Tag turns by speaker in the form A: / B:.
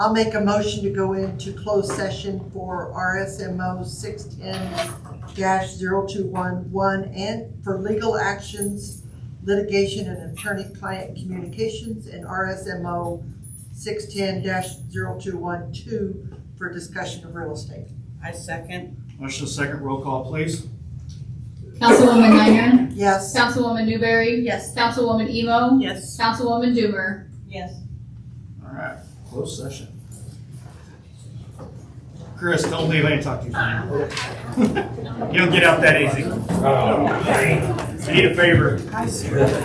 A: I'll make a motion to go into closed session for RSMO six ten dash zero two one one and for legal actions, litigation and attorney-client communications and RSMO six ten dash zero two one two for discussion of real estate.
B: I second.
C: Motion second, roll call please.
D: Councilwoman Niner,
A: Yes.
D: Councilwoman Newberry,
B: Yes.
D: Councilwoman Emo,
B: Yes.
D: Councilwoman Doomer.
B: Yes.
C: All right, closed session. Chris, don't leave, I ain't talk to you. You don't get out that easy. You need a favor.